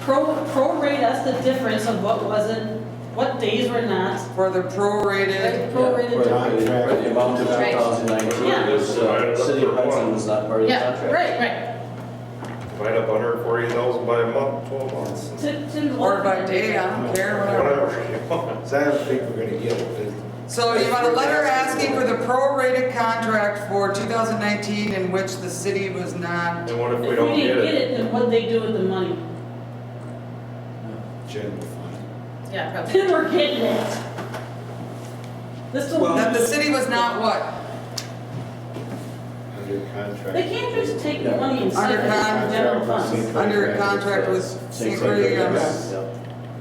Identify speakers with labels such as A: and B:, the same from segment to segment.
A: pro, prorate us the difference of what wasn't, what days were not,
B: For the prorated,
A: like prorated.
C: Right,
A: difference.
C: right, The amount of
D: Right.
C: 2019
A: Yeah.
C: was, uh, City of Hudson was not part of the
D: Yeah,
C: contract.
D: right, right.
E: Divide up hundred and forty thousand by a month, twelve months,
A: To- to-
B: or by day, I don't care, whatever.
E: whatever you want.
F: So I don't think we're gonna get it.
B: So you want a letter asking for the prorated contract for 2019 in which the city was not,
E: And what if
A: If
E: we don't get
A: didn't
E: it?
A: it, then what'd they do with the money?
F: It's general fund.
D: Yeah, probably.
A: Then we're getting it. This will,
B: that the city was not what?
F: Under contract.
A: they can't just take the money and set it in
B: Under
A: the general fund.
F: contract.
B: Under contract with
C: Same
B: security
C: thing.
B: guards.
C: Yeah.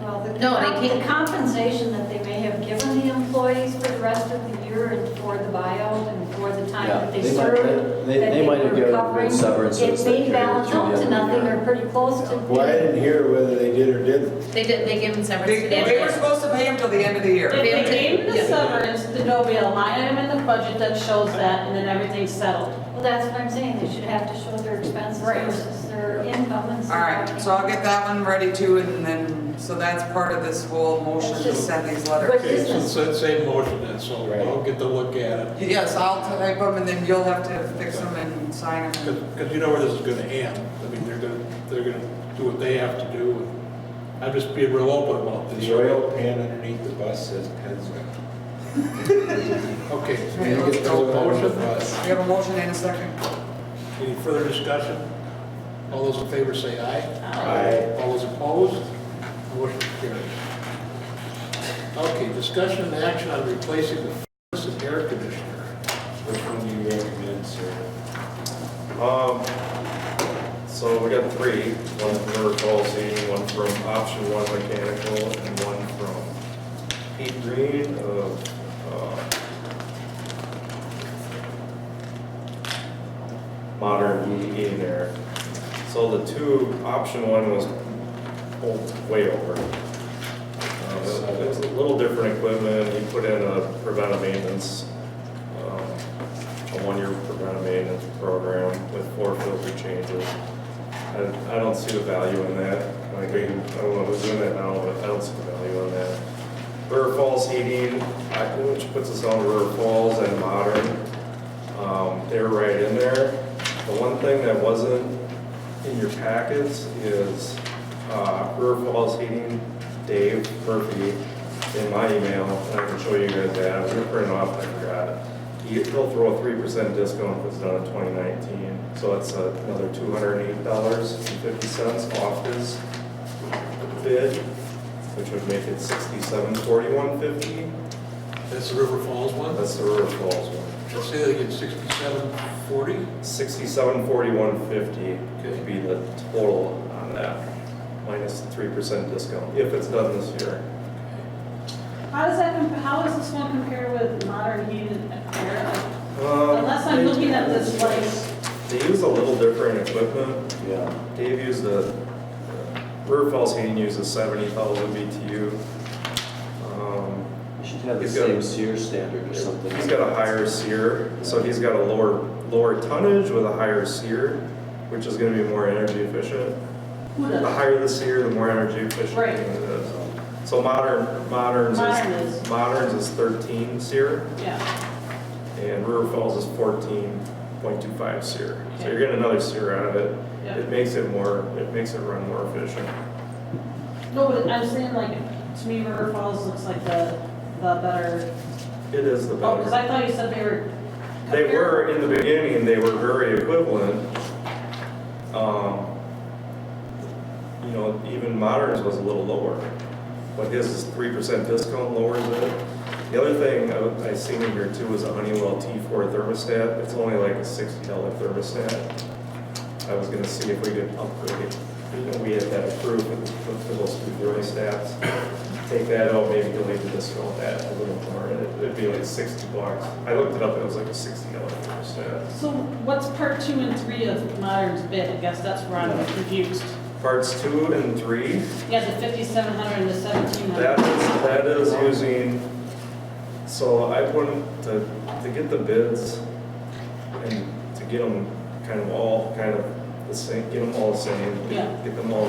G: Well, the
D: No, they
G: com- the compensation that they may have given the employees for the rest of the year and for the buyout and for the time
C: Yeah,
G: that they
C: they might-
G: served.
C: they-
G: that
C: they might have
G: were
C: given them
G: covering,
C: severance
G: It
C: if they
G: may
C: carried
G: balance
C: through
G: out
C: the
G: to
C: end of the
G: nothing
C: year.
G: or pretty close to.
F: Well, I didn't hear whether they did or didn't.
D: They did, they gave them severance.
B: They,
D: They
B: they were
D: did.
B: supposed to pay him till the end of the
A: If
B: year.
A: they gave the
D: Yeah.
A: severance, then there'll be a line item in the budget that shows that, and then everything's settled.
G: Well, that's what I'm saying, they should have to show their expenses
A: Right.
G: versus their income and
B: All
G: stuff.
B: right, so I'll get that one ready too, and then, so that's part of this whole motion to send these letters.
G: Good
H: Okay,
G: business.
H: so it's the same motion then, so
F: Right.
H: I'll get to look at it,
B: Yes, I'll type them, and then you'll have to fix them and sign them.
H: because you know where this is gonna end. I mean, they're gonna, they're gonna do what they have to do. and I'm just being real open about this.
F: The oil pan underneath the bus says Pennzoil.
H: Okay, so
B: Right, let's
H: there's a
B: go.
H: motion.
B: We have a motion and a second.
H: Any further discussion? All those in favor say aye.
F: Aye.
H: All those opposed? Motion carries. Okay, discussion and action on replacing the furnace and air conditioner.
F: Which one do you recommend, sir?
E: Um, so we got three, one from River Policy, one from Option One Mechanical, and one from Pete Green of, uh, Modern E heating and Air. So the two, Option One was o- way over. Um, It was a little different equipment, he put in a preventive maintenance, um, a one-year preventive maintenance program with four filter changes. I, I don't see the value in that. Like, I don't know who's doing that now, but I don't see the value in that. River Falls Heating, I- which puts us on River Falls and Modern, um, they're right in there. The one thing that wasn't in your packets is, uh, River Falls Heating, Dave Murphy, in my email, and I can show you guys that, I was gonna print it off, and I forgot it. He- He'll throw a three percent discount if it's done in twenty nineteen, so it's uh, another two hundred and eight dollars and fifty cents off his bid, which would make it sixty-seven forty-one fifty.
H: That's the River Falls one.
E: That's the River Falls one.
H: Say they get sixty-seven forty.
E: Sixty-seven forty-one fifty
H: Okay.
E: could be the total on that, minus three percent discount, if it's done this year.
A: How does that, comp- how does this one compare with modern heated air?
E: Um,
A: Unless I'm looking at this like,
E: They use a little different equipment,
C: Yeah.
E: Dave used the, River Falls Heating uses seventy thousand BTU. Um,
C: You should have the
E: He's got-
C: same SEER standard or something.
E: He's got a higher SEER, so he's got a lower, lower tonnage with a higher SEER, which is gonna be more energy efficient.
A: who
E: The
A: does?
E: higher the SEER, the more energy efficient
A: Right.
E: it is. So modern, moderns
A: Modern is-
E: is, moderns is thirteen SEER,
A: Yeah,
E: and River Falls is fourteen point two five SEER. So
A: Okay.
E: you're getting another SEER out of it.
A: yeah.
E: It makes it more, it makes it run more efficient.
A: No, but I'm saying like, to me, River Falls looks like the, the better,
E: It is the
A: oh, because
E: better.
A: I thought you said they were.
E: They
A: comparable.
E: were, in the beginning, they were very equivalent. Um, You know, even Moderns was a little lower, but his is three percent discount lowers it. The other thing I- I seen in here too is a Honeywell T4 thermostat. It's only like a sixty dollar thermostat. I was gonna see if we could upgrade it. You know, we had that approved for for those two thermostats. Take that out, maybe delete the discount that a little more, and it- it'd be like sixty bucks. I looked it up, it was like a sixty dollar thermostat.
A: So what's part two and three of modern's bid? I guess that's where I'm confused.
E: Parts two and three,
A: Yeah, the fifty-seven hundred and the seventeen
E: that
A: hundred.
E: is, that is using, so I wouldn't, to, to get the bids and to get them kind of all, kind of the same, get them all the same,
A: Yeah.
E: get them all